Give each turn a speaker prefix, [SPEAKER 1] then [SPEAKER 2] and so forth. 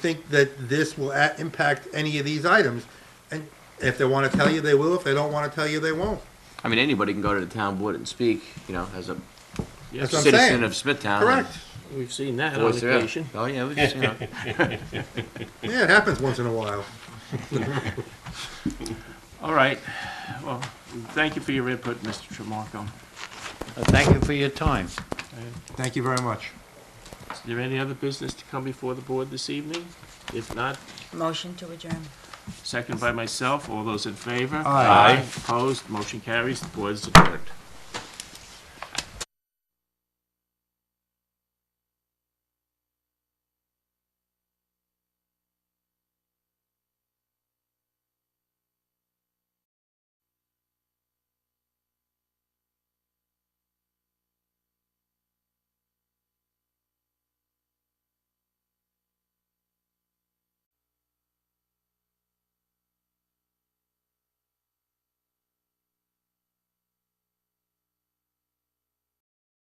[SPEAKER 1] think that this will a- impact any of these items. And if they want to tell you, they will. If they don't want to tell you, they won't.
[SPEAKER 2] I mean, anybody can go to the town board and speak, you know, as a
[SPEAKER 1] That's what I'm
[SPEAKER 2] citizen
[SPEAKER 1] saying.
[SPEAKER 2] of Smithtown. and
[SPEAKER 1] Correct.
[SPEAKER 3] We've seen that on
[SPEAKER 2] voice their-
[SPEAKER 3] occasion.
[SPEAKER 2] Oh, yeah, we just, you know.
[SPEAKER 1] Yeah, it happens once in a while.
[SPEAKER 3] All right. Well, thank you for your input, Mr. Tremarco.
[SPEAKER 4] Uh, Thank you for your time.
[SPEAKER 1] Thank you very much.
[SPEAKER 3] Is there any other business to come before the board this evening? If not,
[SPEAKER 5] Motion to adjourn.
[SPEAKER 3] second by myself. All those in favor?
[SPEAKER 1] Aye.
[SPEAKER 3] Opposed? Motion carries. The board is adjourned.